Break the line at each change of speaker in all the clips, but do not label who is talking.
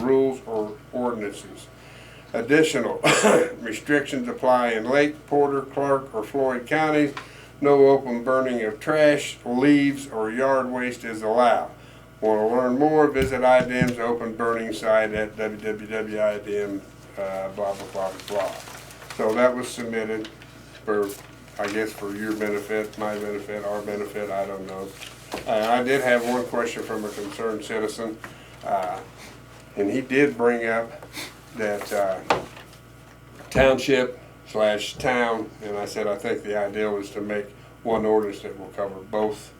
rules or ordinances. Additional restrictions apply in Lake, Porter, Clark, or Floyd counties. No open burning of trash, leaves, or yard waste is allowed. Want to learn more? Visit IDM's open burning site at www.idm, uh, blah, blah, blah, blah. So that was submitted for, I guess, for your benefit, my benefit, our benefit, I don't know. Uh, I did have one question from a concerned citizen, uh, and he did bring up that uh, township slash town, and I said, I think the ideal is to make one ordinance that will cover both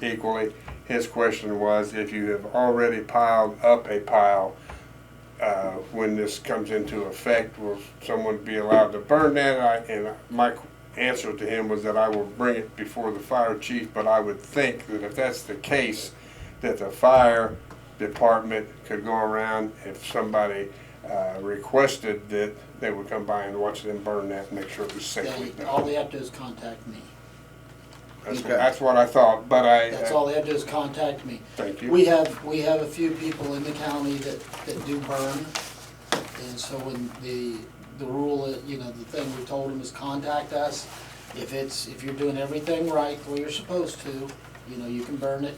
equally. His question was, if you have already piled up a pile, uh, when this comes into effect, will someone be allowed to burn that? I- And my answer to him was that I will bring it before the fire chief, but I would think that if that's the case, that the fire department could go around if somebody uh, requested that they would come by and watch them burn that and make sure it was safely
They- All
done.
they have to do is contact me.
That's that's what I thought, but I,
That's
uh,
all they have to do is contact me.
thank you.
We have, we have a few people in the county that, that do burn. And so when the, the rule, that, you know, the thing we told them is contact us. If it's, if you're doing everything right, the way you're supposed to, you know, you can burn it.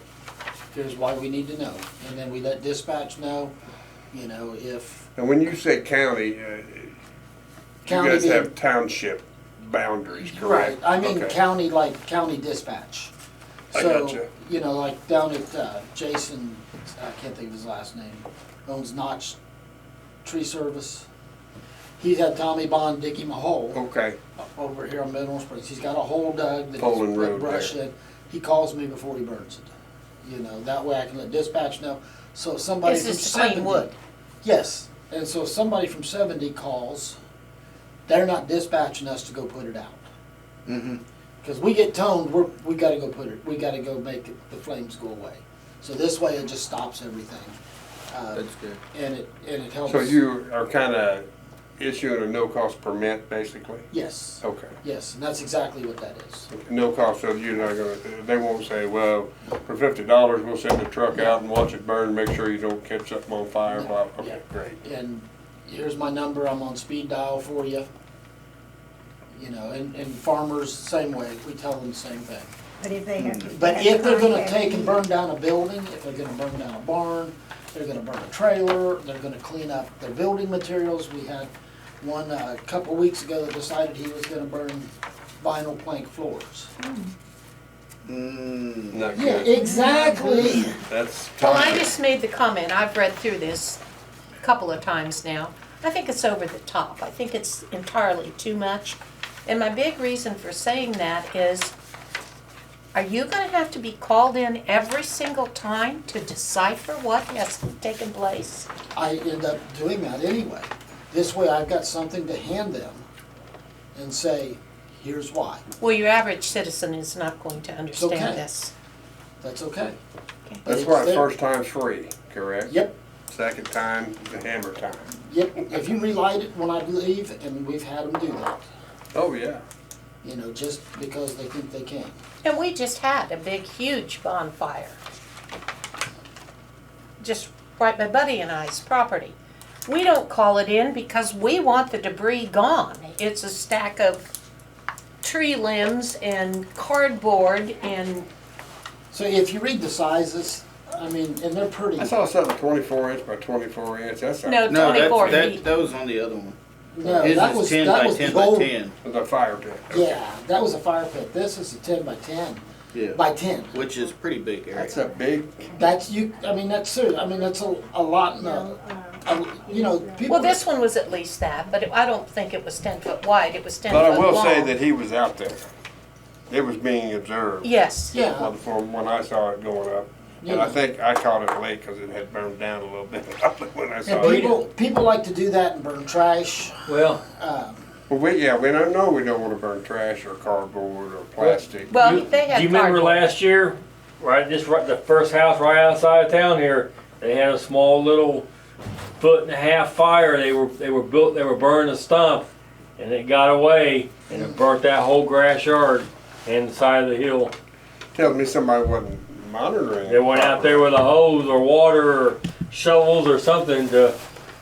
Here's why we need to know. And then we let dispatch know, you know, if
And when you say county, uh, you
county
guys
being-
have township boundaries, correct?
Right, I mean
Okay.
county, like county dispatch.
I
So,
gotcha.
you know, like down at uh, Jason, I can't think of his last name, owns Notch Tree Service. He had Tommy Bond dig him a hole
Okay.
uh, over here on Mineral Springs. He's got a hole dug that
Poland
he's
Road
got brush
there.
in. He calls me before he burns it. You know, that way I can let dispatch know. So if somebody
This
from
is to clean
70
wood.
Yes, and so if somebody from seventy calls, they're not dispatching us to go put it out.
Mm-hmm.
Mhm.
Because we get toned, we're, we gotta go put it, we gotta go make it- the flames go away. So this way it just stops everything. Uh,
That's good.
And it, and it helps.
So you are kind of issuing a no-cost permit, basically?
Yes,
Okay.
yes, and that's exactly what that is.
No cost, so you're not gonna, they won't say, well, for fifty dollars, we'll send the truck out and watch it burn, make sure you don't catch something on fire, blah, okay, great.
And here's my number, I'm on speed dial for you. You know, and, and farmers, same way, we tell them the same thing.
But if they have to.
But
have
if they're gonna
contact
take and
you,
burn down a building, if they're gonna burn down a barn, they're gonna burn a trailer, they're gonna clean up their building materials, we had one uh, a couple weeks ago that decided he was gonna burn vinyl plank floors.
Mm.
Not
Yeah,
good,
exactly,
that's.
Well, I
toxic.
just made the comment, I've read through this a couple of times now. I think it's over the top. I think it's entirely too much. And my big reason for saying that is, are you gonna have to be called in every single time to decipher what has taken place?
I end up doing that anyway. This way I've got something to hand them and say, here's why,
Well, your average citizen is not going to
okay.
understand this.
that's okay.
Okay.
That's
It's
why
there.
first time's free, correct?
Yep,
Second time, the hammer time.
yep, if you relight it when I leave, and we've had them do that,
Oh, yeah.
you know, just because they think they can.
And we just had a big, huge bonfire. Just right by Buddy and I's property. We don't call it in because we want the debris gone. It's a stack of tree limbs and cardboard and,
So if you read the sizes, I mean, and they're pretty.
I saw something twenty-four inch by twenty-four inch, that's a,
no,
No,
twenty-four
that,
feet.
that, that was on the other one.
No,
His
that
is
was,
ten
that
by
was
ten
the
by
old.
ten.
it's a fire pit.
Yeah, that was a fire pit. This is a ten by ten,
Yeah.
by ten.
Which is pretty big area.
That's a big,
That's you, I mean, that's serious. I mean, that's a, a lot, in a- a- you know, people.
uh, Well, this one was at least that, but it- I don't think it was ten foot wide, it was ten
but
foot long.
I will say that he was out there. It was being observed.
Yes.
Yeah,
Well, From when I saw it going up, and I
Yeah.
think I caught it late because it had burned down a little bit when I saw
and
it.
people, people like to do that and burn trash.
Well,
Um,
Well, we, yeah, we don't know, we don't want to burn trash or cardboard or plastic.
Well,
you-
they had
do you remember
cardboard.
last year, right? This right, the first house right outside of town here. They had a small little foot and a half fire. They were they were built. They were burning a stump, and it got away and it burnt that whole grass yard and the side of the hill.
Tells me somebody wasn't monitoring.
They went out there with a hose or water or shovels or something to